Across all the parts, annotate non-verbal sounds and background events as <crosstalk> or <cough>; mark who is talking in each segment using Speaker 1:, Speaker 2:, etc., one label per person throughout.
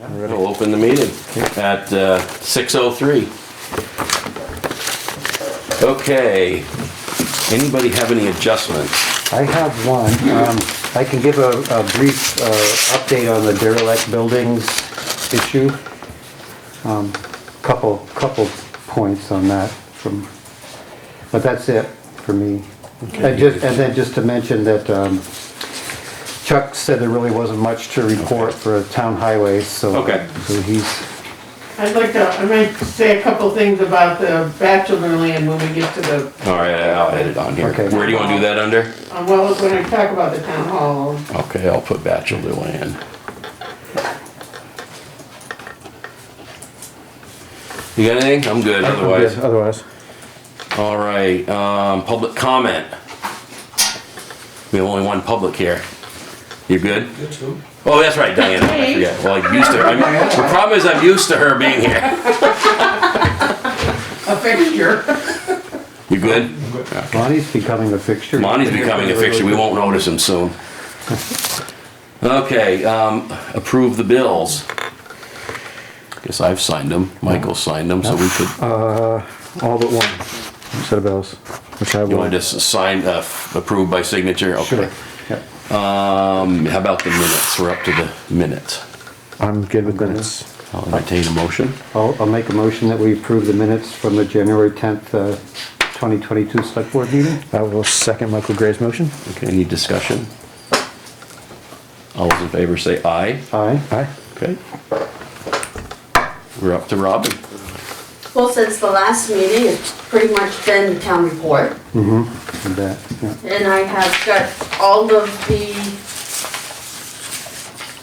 Speaker 1: All right, I'll open the meeting at uh, 6:03. Okay, anybody have any adjustments?
Speaker 2: I have one. Um, I can give a, a brief, uh, update on the derelict buildings issue. Um, couple, couple points on that from, but that's it for me. And just, and then just to mention that, um, Chuck said there really wasn't much to report for town highways, so.
Speaker 1: Okay.
Speaker 2: So he's,
Speaker 3: I'd like to, I might say a couple things about the bachelor land when we get to the,
Speaker 1: All right, I'll edit on here.
Speaker 2: Okay.
Speaker 1: Where do you want to do that under?
Speaker 3: uh, well, when I talk about the town hall,
Speaker 1: Okay, I'll put bachelor land. You got anything? I'm good, otherwise.
Speaker 4: Otherwise.
Speaker 1: All right, um, public comment. We have only one public here. You good? Oh, that's right, Diana, I
Speaker 3: Hey.
Speaker 1: forget. Well, I'm used to her. I'm- The problem is I'm used to her being here.
Speaker 3: a fixture. <laughs>
Speaker 1: You good?
Speaker 2: Lonnie's becoming a fixture.
Speaker 1: Monty's becoming a fixture, we won't notice him soon. Okay, um, approve the bills. Guess I've signed them, Michael signed them, so we could,
Speaker 4: All but one set of bills, which I
Speaker 1: you want
Speaker 4: will.
Speaker 1: to just sign, uh, approved by signature? Okay.
Speaker 4: Sure. Yep.
Speaker 1: Um, how about the minutes? We're up to the minutes.
Speaker 4: I'm good with minutes.
Speaker 1: I'll entertain a motion.
Speaker 2: I'll, I'll make a motion that we approve the minutes from the January 10th, uh, 2022 select board meeting.
Speaker 4: I will second Michael Gray's motion.
Speaker 1: Okay, any discussion? All those in favor say aye.
Speaker 2: Aye.
Speaker 4: Aye.
Speaker 1: Okay. We're up to Robin.
Speaker 5: Well, since the last meeting, it's pretty much been the town report,
Speaker 2: Mm-hmm. And that, yeah.
Speaker 5: and I have got all of the,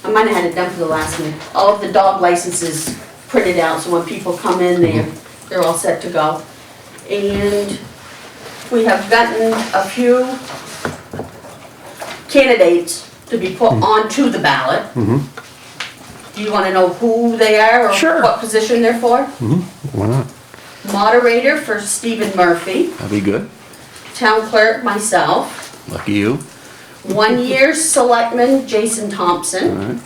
Speaker 5: I might have had it done for the last meeting, all of the dog licenses printed out, so when people come in, they're, they're all set to go. And we have gotten a few candidates to be put onto the ballot. Do you wanna know who they are,
Speaker 4: Sure.
Speaker 5: or what position they're for?
Speaker 4: Why not?
Speaker 5: moderator for Stephen Murphy,
Speaker 1: That'd be good.
Speaker 5: town clerk myself,
Speaker 1: Lucky you.
Speaker 5: one-year selectman Jason Thompson,
Speaker 1: Alright.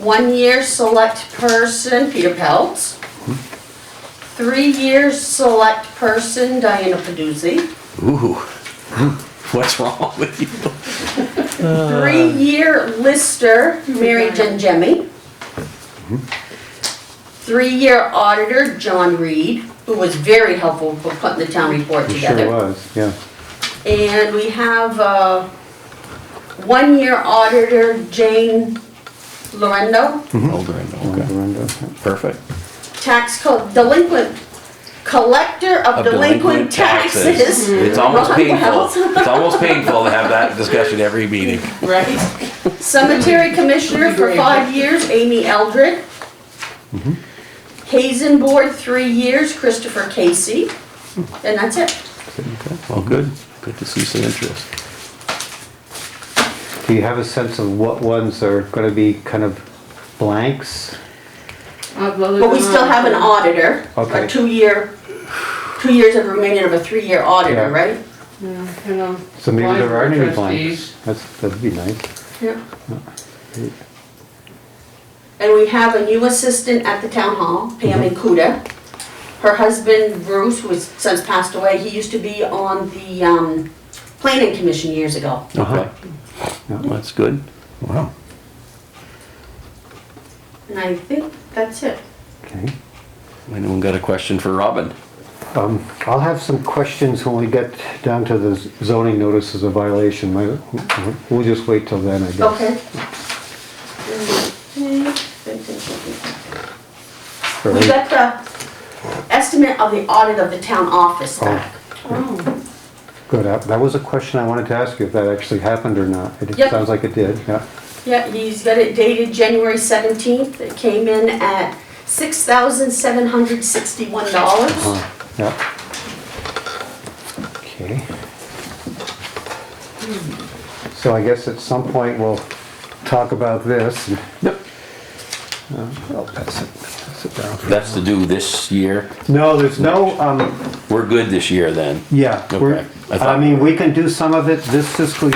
Speaker 5: one-year select person Peter Peltz, three-year select person Diana Peduzzi,
Speaker 1: Ooh. <laughs> What's wrong with you?
Speaker 5: three-year lister Mary Gengemi, three-year auditor John Reed, who was very helpful for putting the town report
Speaker 2: It
Speaker 5: together.
Speaker 2: sure was, yeah.
Speaker 5: And we have uh, one-year auditor Jane Lorendo,
Speaker 1: Older, I know, okay.
Speaker 2: Miranda.
Speaker 1: Perfect.
Speaker 5: tax co- delinquent, collector of delinquent taxes.
Speaker 1: Mm-hmm. It's almost
Speaker 5: Ron <laughs>
Speaker 1: painful.
Speaker 5: Wells.
Speaker 1: It's almost painful to have that discussion every meeting.
Speaker 5: Right. Cemetery commissioner for five years, Amy Eldred. Hazen board, three years, Christopher Casey. And that's it.
Speaker 1: Well, good. Good to see some interest.
Speaker 2: Do you have a sense of what ones are gonna be kind of blanks?
Speaker 3: Uh,
Speaker 5: But we still have an auditor,
Speaker 2: Okay.
Speaker 5: a two-year, two years of remaining of a three-year auditor,
Speaker 2: Yeah.
Speaker 5: right?
Speaker 3: um,
Speaker 2: So maybe there aren't any blanks. That's, that'd be nice.
Speaker 5: Yeah. And we have a new assistant at the town hall, Pam Ikuda. Her husband Bruce, who has since passed away, he used to be on the um, planning commission years ago.
Speaker 1: Okay.
Speaker 2: Yeah.
Speaker 1: That's good.
Speaker 4: Wow.
Speaker 5: And I think that's it.
Speaker 2: Okay.
Speaker 1: Anyone got a question for Robin?
Speaker 2: Um, I'll have some questions when we get down to the zoning notices of violation. My- We'll just wait till then, I guess.
Speaker 5: Okay.
Speaker 2: For-
Speaker 5: We got the estimate of the audit of the town office back. Oh.
Speaker 2: Good, Uh, that was a question I wanted to ask you, if that actually happened or not. It
Speaker 5: Yep.
Speaker 2: sounds like it did, yeah.
Speaker 5: Yeah, he's got it dated January 17th. It came in at $6,761.
Speaker 2: Uh, Yeah. Okay. So I guess at some point we'll talk about this. and-
Speaker 1: Yep.
Speaker 2: Uh, I'll pass it, pass it down.
Speaker 1: That's to do this year.
Speaker 2: No, there's no, um,
Speaker 1: We're good this year then.
Speaker 2: yeah, we're,
Speaker 1: Okay, I thought-
Speaker 2: I mean, we can do some of it this fiscal